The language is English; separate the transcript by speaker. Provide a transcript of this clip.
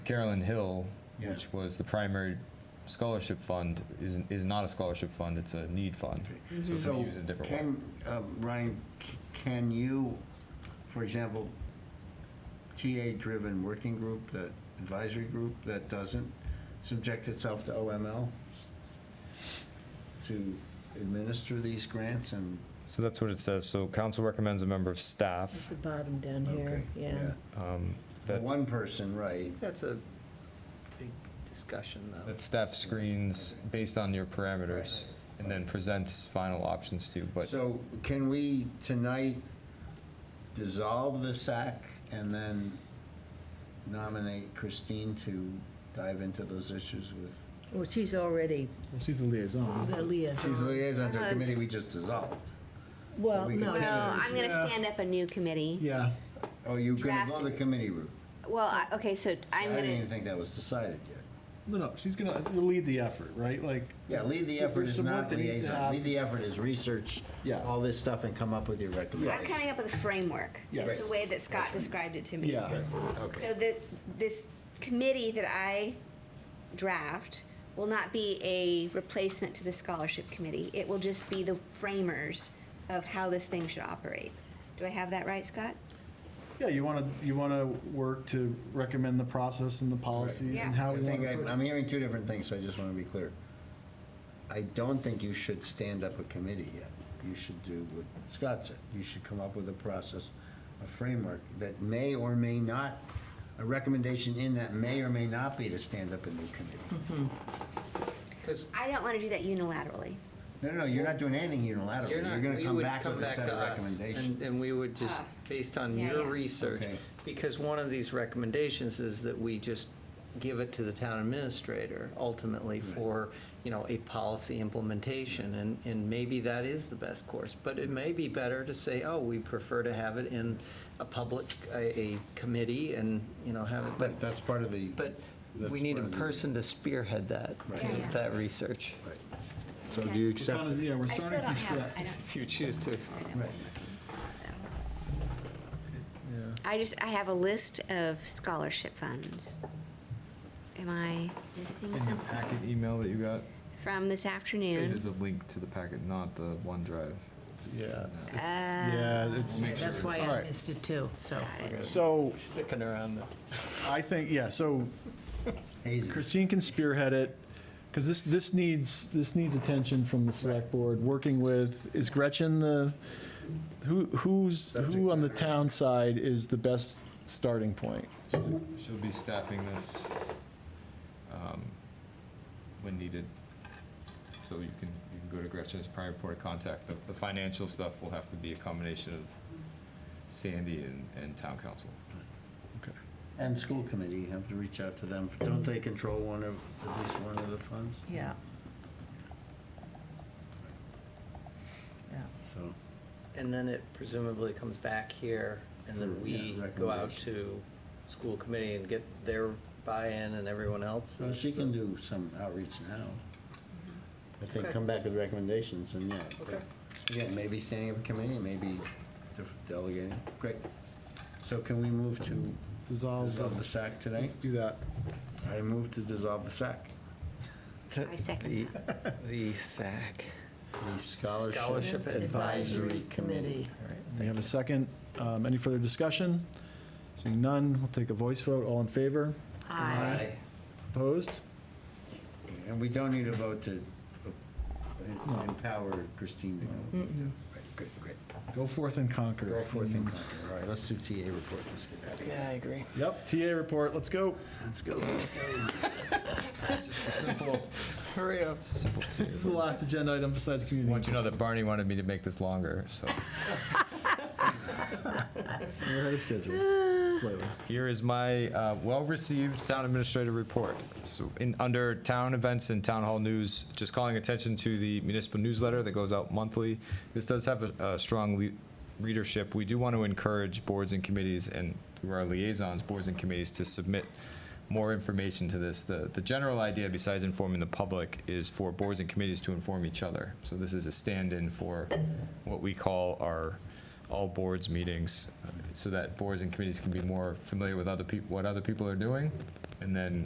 Speaker 1: Carolyn Hill,
Speaker 2: Yeah.
Speaker 1: which was the primary scholarship fund, is, is not a scholarship fund, it's a need fund. So it's gonna use it a different way.
Speaker 2: Mm-hmm. Can, uh, Ryan, c- can you, for example, TA-driven working group, that advisory group that doesn't subject itself to OML to administer these grants and?
Speaker 1: So that's what it says. So council recommends a member of
Speaker 3: At
Speaker 1: staff.
Speaker 3: the bottom down
Speaker 2: Okay,
Speaker 3: here, yeah.
Speaker 1: um,
Speaker 2: For
Speaker 1: That,
Speaker 2: One person, right,
Speaker 4: That's a big discussion, though.
Speaker 1: that staff screens based on your parameters and then presents final options to, you, but
Speaker 2: So can we tonight dissolve the SAC and then nominate Christine to dive into those issues with?
Speaker 3: Well, she's already uh,
Speaker 5: Well, she's the liaison.
Speaker 3: a liaison.
Speaker 2: She's the liaison to the committee we just dissolved.
Speaker 3: Well,
Speaker 2: we
Speaker 3: no,
Speaker 2: can-
Speaker 6: Well, I'm going to
Speaker 5: Yeah.
Speaker 6: stand up a new committee.
Speaker 5: Yeah.
Speaker 2: Oh, you're gonna go
Speaker 6: Draft.
Speaker 2: the committee route?
Speaker 6: Well, I- okay, so
Speaker 2: I
Speaker 6: I'm
Speaker 2: didn't
Speaker 6: going
Speaker 2: even
Speaker 6: to,
Speaker 2: think that was decided yet.
Speaker 5: No, no, she's gonna lead the effort, right? Like.
Speaker 2: Yeah, lead the
Speaker 5: so
Speaker 2: effort
Speaker 5: there's
Speaker 2: is
Speaker 5: some work
Speaker 2: not
Speaker 5: that needs to
Speaker 2: liaison.
Speaker 5: happen.
Speaker 2: Lead the effort is research
Speaker 5: Yeah.
Speaker 2: all this stuff and come up with your
Speaker 6: I'm
Speaker 2: recommendations.
Speaker 6: coming up with a framework. It's
Speaker 5: Yes.
Speaker 6: the way that Scott described it to me.
Speaker 5: Yeah.
Speaker 6: So that this committee that I draft will not be a replacement to the scholarship committee. It will just be the framers of how this thing should operate. Do I have that right, Scott?
Speaker 5: Yeah, you wanna, you wanna work to recommend the process and the policies
Speaker 6: Yeah.
Speaker 5: and how
Speaker 2: I
Speaker 5: we
Speaker 2: think
Speaker 5: wanna.
Speaker 2: I'm,
Speaker 5: put-
Speaker 2: I'm hearing two different things, so I just wanna be clear. I don't think you should stand up a committee yet. You should do what Scott said. You should come up with a process, a framework that may or may not, a recommendation in that may or may not be to stand up a new committee.
Speaker 4: Because
Speaker 6: I don't want to do that unilaterally.
Speaker 2: No, no, no, you're not doing anything unilaterally.
Speaker 4: you're
Speaker 2: Oh, You're
Speaker 4: not,
Speaker 2: gonna
Speaker 4: we
Speaker 2: come
Speaker 4: would
Speaker 2: back
Speaker 4: come
Speaker 2: with a
Speaker 4: back
Speaker 2: set
Speaker 4: to
Speaker 2: of
Speaker 4: us. And,
Speaker 2: recommendations.
Speaker 4: and we would just, based on
Speaker 6: Ah. Yeah,
Speaker 4: your
Speaker 6: yeah.
Speaker 4: research,
Speaker 2: Okay.
Speaker 4: because one of these recommendations is that we just give it to the town administrator ultimately for, you know, a policy implementation. And, and maybe that is the best course. But it may be better to say, oh, we prefer to have it in a public, a, a committee and, you know, have it. But,
Speaker 2: But that's part of the.
Speaker 4: but
Speaker 2: That's
Speaker 4: we need a
Speaker 2: part of the-
Speaker 4: person to spearhead that, to-
Speaker 6: Yeah, yeah.
Speaker 4: that research.
Speaker 2: Right. So do you
Speaker 5: We're
Speaker 2: accept?
Speaker 5: kinda- Yeah, we're
Speaker 6: I still
Speaker 5: starting
Speaker 6: don't
Speaker 5: from
Speaker 6: have, I
Speaker 5: scratch.
Speaker 6: don't.
Speaker 4: If you choose to.
Speaker 6: I don't know. So. I just, I have a list of scholarship funds. Am I
Speaker 1: in
Speaker 6: missing
Speaker 1: your
Speaker 6: something
Speaker 1: packet email that you got,
Speaker 6: from this
Speaker 1: it is a
Speaker 6: afternoon?
Speaker 1: link to the packet, not the OneDrive.
Speaker 5: Yeah.
Speaker 6: Uh,
Speaker 5: Yeah, it's.
Speaker 1: Make sure
Speaker 3: that's
Speaker 1: it's-
Speaker 3: why
Speaker 5: All
Speaker 3: I
Speaker 5: right.
Speaker 3: missed it too, so.
Speaker 5: So
Speaker 4: Sticking around the.
Speaker 5: I think, yeah, so
Speaker 2: Hazy.
Speaker 5: Christine can spearhead it, because this, this needs, this needs attention from the select board, working with, is Gretchen the, who, who's, who on the town side is the best starting point?
Speaker 1: She'll be staffing this um, when needed. So you can, you can go to Gretchen as primary point of contact. The, the financial stuff will have to be a combination of Sandy and, and town council.
Speaker 5: Okay.
Speaker 2: And school committee, you have to reach out to them. Don't they control one of, at least one of the funds?
Speaker 3: Yeah. Yeah.
Speaker 2: So,
Speaker 4: And then it presumably comes back here, and then
Speaker 2: For,
Speaker 4: we
Speaker 2: yeah,
Speaker 4: go out
Speaker 2: recommendation.
Speaker 4: to school committee and get their buy-in and everyone else.
Speaker 2: so she can do some outreach now. I think come back with recommendations and yeah.
Speaker 4: Okay.
Speaker 2: Again, maybe standing up a committee, maybe def- delegating. Great. So can we move to
Speaker 5: Dissolve,
Speaker 2: dissolve the
Speaker 5: the-
Speaker 2: SAC today?
Speaker 5: let's do that.
Speaker 2: I move to dissolve the SAC.
Speaker 6: I second that.
Speaker 4: The SAC.
Speaker 2: The Scholarship
Speaker 4: Scholarship Advisory
Speaker 2: Committee.
Speaker 5: We have a second. Um, Any further discussion? Seeing none, we'll take a voice vote. All in favor?
Speaker 3: Aye.
Speaker 5: Opposed?
Speaker 2: And we don't need a vote to uh, empower Christine to go. Right, Good, great.
Speaker 5: Go forth and conquer.
Speaker 2: Go forth and conquer. All right, let's do TA report. Let's get out of here.
Speaker 4: Yeah, I agree.
Speaker 5: Yep, TA report, let's go.
Speaker 2: Let's go. Let's go.
Speaker 1: Simple.
Speaker 4: Hurry up.
Speaker 5: This is the last agenda item besides community.
Speaker 1: Want you to know that Barney wanted me to make this longer, so
Speaker 5: We're ahead of schedule, slightly.
Speaker 1: here is my uh, well-received town administrator report. So in, under town events and town hall news, just calling attention to the municipal newsletter that goes out monthly. This does have a, a strong lea- readership. We do want to encourage boards and committees and through our liaisons, boards and committees to submit more information to this. The, the general idea, besides informing the public, is for boards and committees to inform each other. So this is a stand-in for what we call our all boards meetings, uh, so that boards and committees can be more familiar with other people, what other people are doing, and then